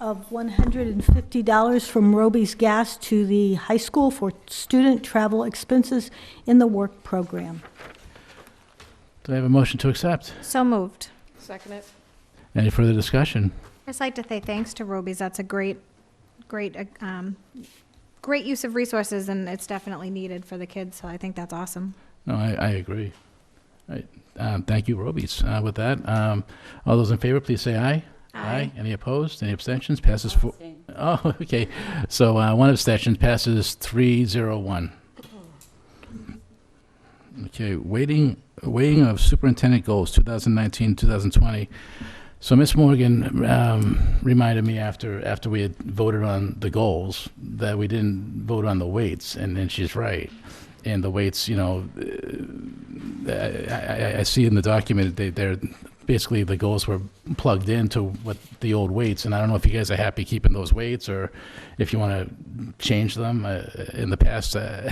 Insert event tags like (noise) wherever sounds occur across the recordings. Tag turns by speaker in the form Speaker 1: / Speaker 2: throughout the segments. Speaker 1: of $150 from Roby's Gas to the high school for student travel expenses in the work program.
Speaker 2: Do I have a motion to accept?
Speaker 3: So moved.
Speaker 4: Second it.
Speaker 2: Any further discussion?
Speaker 3: I'd just like to say thanks to Robies. That's a great, great, uh, um, great use of resources, and it's definitely needed for the kids, so I think that's awesome.
Speaker 2: No, I, I agree. Right. Um, thank you, Robies. Uh, with that, um, all those in favor, please say aye. Any opposed? Any abstentions? Passes four. Oh, (laughs) okay. So uh, one abstention passes three zero one. Okay, waiting, weighing of superintendent goals 2019, 2020. So Ms. Morgan um, reminded me after after we had voted on the goals that we didn't vote on the weights, and then she's right. And the weights, you know, uh, I, I, I see in the document they, they're basically the goals were plugged into what the old weights, and I don't know if you guys are happy keeping those weights or if you want to change them. Uh, in the past, uh,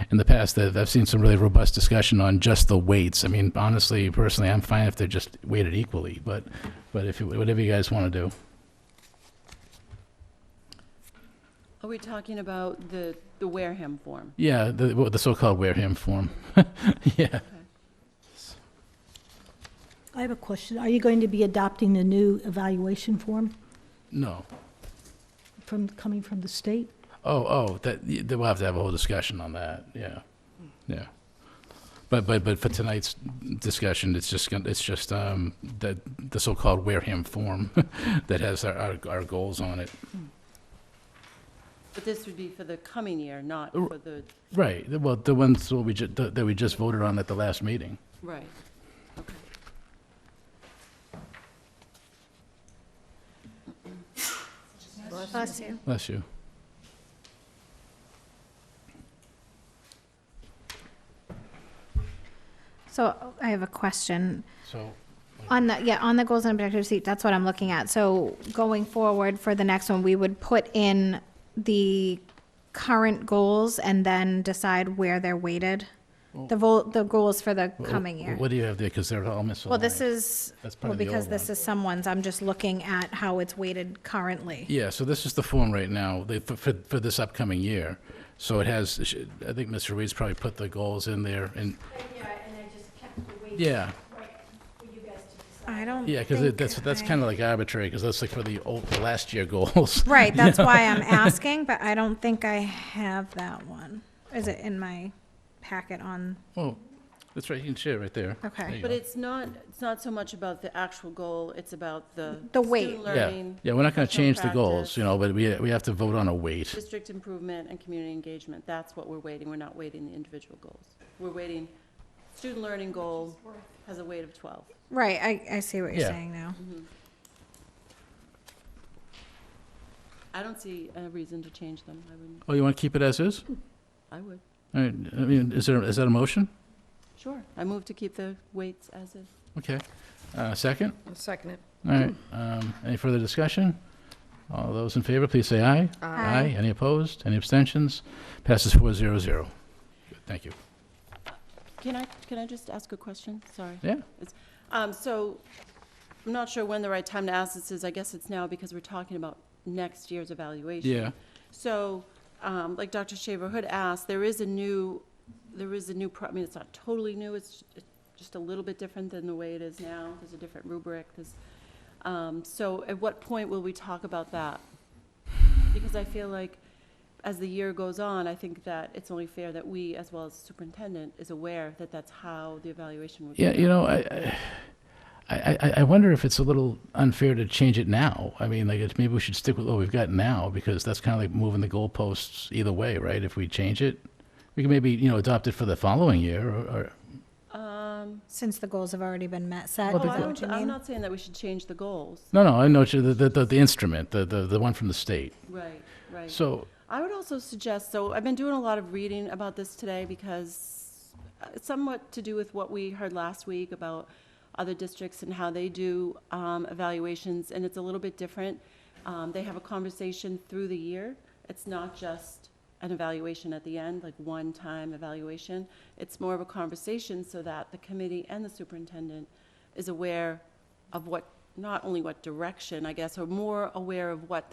Speaker 2: (laughs) in the past, uh, I've I've seen some really robust discussion on just the weights. I mean, honestly, personally, I'm fine if they're just weighted equally, but but if you, whatever you guys want to do.
Speaker 4: Are we talking about the, the Wareham form?
Speaker 2: Yeah, the, what the so-called Wareham form. (laughs) yeah.
Speaker 1: I have a question. Are you going to be adopting the new evaluation form
Speaker 2: No.
Speaker 1: from, coming from the state?
Speaker 2: Oh, oh, that, y- that we'll have to have a whole discussion on that, yeah, yeah. But, but, but for tonight's discussion, it's just, gon- it's just, um, that, the so-called Wareham form (laughs) that has our, our, our goals on it.
Speaker 4: But this would be for the coming year, not
Speaker 2: Uh,
Speaker 4: for the,
Speaker 2: Right, the- well, the ones that we ju, that that we just voted on at the last meeting.
Speaker 4: right. Okay.
Speaker 3: Bless you.
Speaker 2: Bless you.
Speaker 3: So I have a question.
Speaker 2: So,
Speaker 3: On the, yeah, on the goals and objectives sheet, that's what I'm looking at. So going forward for the next one, we would put in the current goals and then decide where they're weighted? The vol, the goals for the
Speaker 2: wh-
Speaker 3: coming year?
Speaker 2: What do you have there, because they're all misaligned.
Speaker 3: Well, this is,
Speaker 2: That's probably
Speaker 3: well,
Speaker 2: the
Speaker 3: because
Speaker 2: old
Speaker 3: this
Speaker 2: one.
Speaker 3: is someone's, I'm just looking at how it's weighted currently.
Speaker 2: Yeah, so this is the form right now, they, for, for, for this upcoming year. So it has, I think Mr. Reed's probably put the goals in there, and, yeah.
Speaker 3: I don't
Speaker 2: Yeah, because
Speaker 3: think
Speaker 2: that's, that's
Speaker 3: I-
Speaker 2: kind of like arbitrary, because that's like for the old, the last year goals. (laughs)
Speaker 3: (laughs) Right, that's why I'm asking, but I don't think I have that one. Is it in my packet on,
Speaker 2: Well, that's right, you can share it right there.
Speaker 3: Okay.
Speaker 2: There you
Speaker 4: But
Speaker 2: go.
Speaker 4: it's not, it's not so much about the actual goal, it's about the.
Speaker 3: The weight.
Speaker 4: Student
Speaker 2: Yeah.
Speaker 4: learning,
Speaker 2: Yeah, we're not going to
Speaker 4: personal
Speaker 2: change the goals,
Speaker 4: practice.
Speaker 2: you know, but we, we have to vote on a weight.
Speaker 4: district improvement, and community engagement. That's what we're waiting. We're not waiting the individual goals. We're waiting, student learning goal has a weight of 12.
Speaker 3: right, I, I see what you're
Speaker 2: Yeah.
Speaker 3: saying now.
Speaker 4: I don't see a reason to change them. I wouldn't,
Speaker 2: Oh, you want to keep it as is?
Speaker 4: I would.
Speaker 2: All right, I mean, is there, is that a motion?
Speaker 4: Sure. I move to keep the weights as is.
Speaker 2: Okay. Uh, second?
Speaker 5: Second it.
Speaker 2: All right, um, any further discussion? All those in favor, please say aye.
Speaker 4: Uh,
Speaker 3: Aye.
Speaker 2: Any opposed? Any abstentions? Passes four zero zero. Thank you.
Speaker 4: Can I, can I just ask a question? Sorry.
Speaker 2: Yeah,
Speaker 4: Um, so, I'm not sure when the right time to ask this is, I guess it's now because we're talking about next year's evaluation.
Speaker 2: yeah,
Speaker 4: So, um, like Dr. Shaver Hood asked, there is a new, there is a new, pro- I mean, it's not totally new, it's just a little bit different than the way it is now, there's a different rubric, there's, um, so at what point will we talk about that? Because I feel like as the year goes on, I think that it's only fair that we, as well as superintendent, is aware that that's how the evaluation would be.
Speaker 2: yeah, you
Speaker 4: done.
Speaker 2: know, I, I- I, I- I wonder if it's a little unfair to change it now. I mean, like, it's, maybe we should stick with what we've got now, because that's kind of like moving the goalposts either way, right? If we change it, we can maybe, you know, adopt it for the following year, or, or,
Speaker 3: Since the goals have already been met, set, is
Speaker 4: Oh, I
Speaker 3: that what
Speaker 4: don't,
Speaker 3: you
Speaker 4: I'm
Speaker 3: mean?
Speaker 4: not saying that we should change the goals,
Speaker 2: no, no, I know, what you- the, the, the instrument, the, the, the one from the state.
Speaker 4: right, right.
Speaker 2: So,
Speaker 4: I would also suggest, so I've been doing a lot of reading about this today because it's somewhat to do with what we heard last week about other districts and how they do um, evaluations, and it's a little bit different. Um, They have a conversation through the year. It's not just an evaluation at the end, like one-time evaluation. It's more of a conversation so that the committee and the superintendent is aware of what not only what direction, I guess, or more aware of what